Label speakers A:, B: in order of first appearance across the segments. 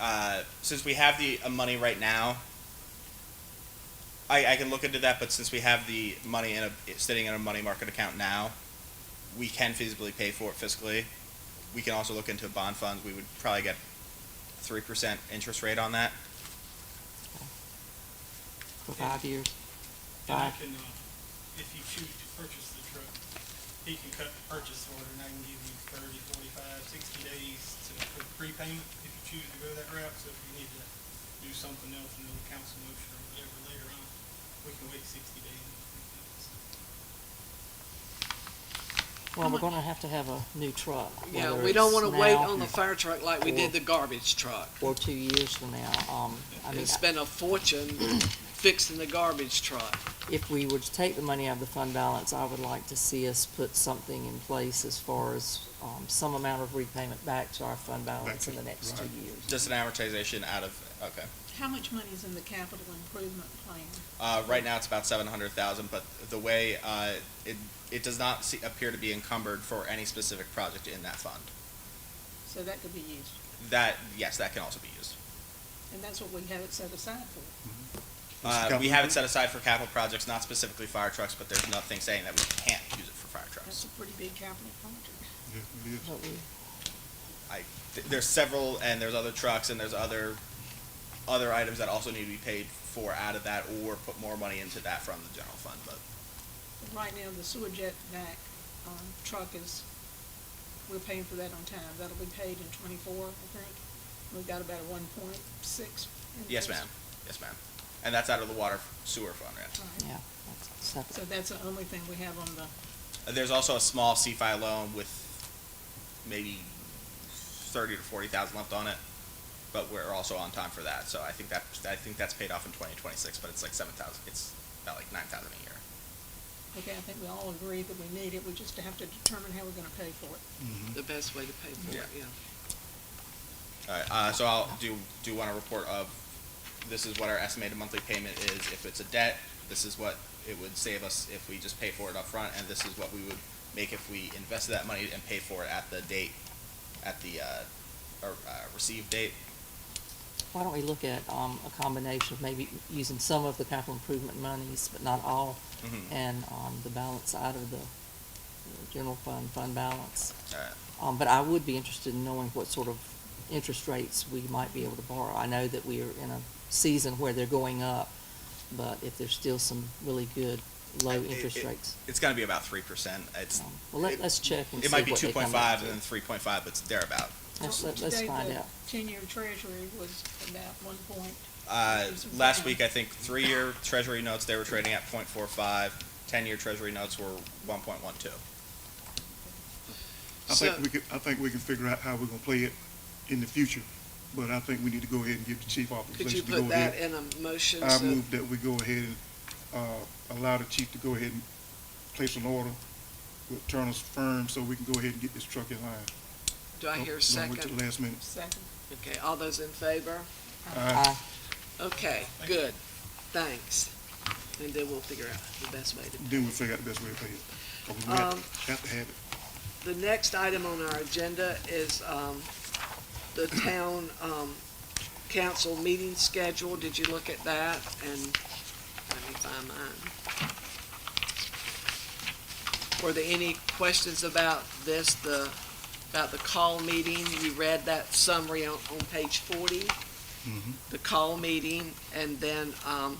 A: uh, since we have the uh, money right now, I, I can look into that. But since we have the money in a sitting in a money market account now, we can feasibly pay for it fiscally. We can also look into bond funds. We would probably get three percent interest rate on that.
B: for five years.
C: And I
B: Five.
C: can, uh, if you choose to purchase the truck, he can cut the purchase order and I can give you thirty, forty-five, sixty days to for prepayment if you choose to go that route. So if you need to do something else, another council motion or whatever later on, we can wait sixty days. and prepay it.
B: Well, we're gonna have to have a new truck.
D: Yeah,
B: whether
D: we don't
B: it's
D: wanna wait
B: now
D: on the fire truck like we did the garbage truck.
B: Or two years from now, um, I mean,
D: And spend a fortune fixing the garbage truck.
B: if we were to take the money out of the fund balance, I would like to see us put something in place as far as, um, some amount of repayment back to our fund balance in the next two years.
A: Just an amortization out of okay.
E: How much money is in the capital improvement plan?
A: Uh, right now, it's about seven hundred thousand, but the way uh, it it does not see, appear to be encumbered for any specific project in that fund.
E: So that could be used,
A: That yes, that can also be used.
E: and that's what we have it set aside for.
A: Uh, we have it set aside for capital projects, not specifically fire trucks, but there's nothing saying that we can't use it for fire
E: That's
A: trucks.
E: a pretty big capital project.
B: But we-
A: I, th- there's several, and there's other trucks, and there's other, other items that also need to be paid for out of that, or put more money into that from the general fund, but
E: But Right now, the sewer jet vac, um, truck is, we're paying for that on time. That'll be paid in twenty-four, I think. We've got about a one point six.
A: yes, ma'am, yes, ma'am. And that's out of the water sewer fund, yeah.
B: yeah, that's
E: So
B: separate.
E: that's the only thing we have on the,
A: Uh, There's also a small CFI loan with maybe thirty to forty thousand left on it, but we're also on time for that, so I think that, I think that's paid off in twenty twenty-six, but it's like seven thousand, it's about like nine thousand a year.
E: okay, I think we all agree that we need it. We just have to determine how we're gonna pay for it.
B: Mm-hmm.
D: The best way to pay for it, yeah.
A: Alright, uh, so I'll do, do want a report of, this is what our estimated monthly payment is if it's a debt, this is what it would save us if we just pay for it up front, and this is what we would make if we invested that money and pay for it at the date, at the, uh, or, uh, received date.
B: Why don't we look at, um, a combination of maybe using some of the capital improvement monies, but not all,
A: Mhm.
B: and, um, the balance out of the uh, general fund, fund balance?
A: Alright,
B: Um, but I would be interested in knowing what sort of interest rates we might be able to borrow. I know that we are in a season where they're going up, but if there's still some really good low
A: It-
B: interest
A: it-
B: rates.
A: It's gonna be about three percent, it's,
B: um, Well, let,
A: it-
B: let's check and see
A: it might
B: what
A: be two
B: they
A: point
B: come up
A: five
B: to.
A: and then three point five, but it's thereabout.
B: Let's, let- let's
E: Today,
B: find
E: the
B: out.
E: Ten-year treasury was about one point.
A: Uh,
E: There's some
A: last
E: down.
A: week, I think three-year treasury notes, they were trading at 0.45. ten-year treasury notes were one point one two.
F: I
D: So-
F: think we could, I think we can figure out how we're gonna play it in the future, but I think we need to go ahead and give the chief
D: Could you
F: authorization to go
D: put that
F: ahead.
D: in a motion
F: I
D: so,
F: move that we go ahead and, uh, allow the chief to go ahead and place an order with Turner's firm so we can go ahead and get this truck in line. Oh,
D: do I hear a
F: Don't- don't wait till
D: second?
F: the last minute.
E: Second.
D: Okay, all those in favor?
F: Aye.
B: I,
D: Okay, good, thanks. And then we'll figure out the best way to
F: Then we'll figure out the best way to pay it. 'Cause we have-
D: Um,
F: have to have it.
D: The next item on our agenda is um, the town um, council meeting schedule. Did you look at that? And let me find mine. Were there any questions about this, the, about the call meeting? You read that summary on, on page 40? The call meeting, and then um,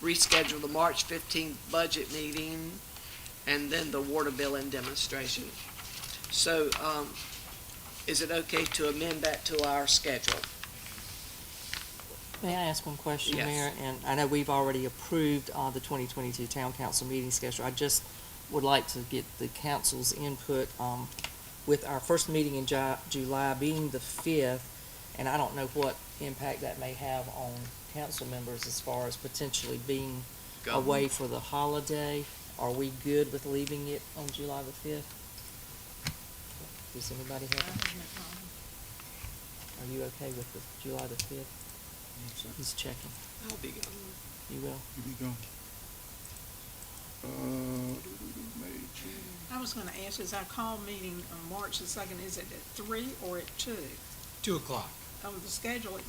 D: reschedule the March 15th budget meeting, and then the water bill and demonstration. So, um, is it okay to amend that to our schedule?
B: may I ask one question,
D: Yes.
B: Mayor? And I know we've already approved, uh, the twenty twenty-two town council meeting schedule. I just would like to get the council's input, um, with our first meeting in Ju- July being the fifth, and I don't know what impact that may have on council members as far as potentially being
D: Go.
B: away for the holiday. Are we good with leaving it on July the fifth? Does anybody
E: I
B: have,
E: have no problem.
B: are you okay with the July the fifth? He's checking.
D: I'll be gone.
B: You will?
F: Here we go. Uh, May, June.
E: I was gonna ask, is our call meeting on March the second, is it at three or at two?
G: Two o'clock.
E: on the schedule, it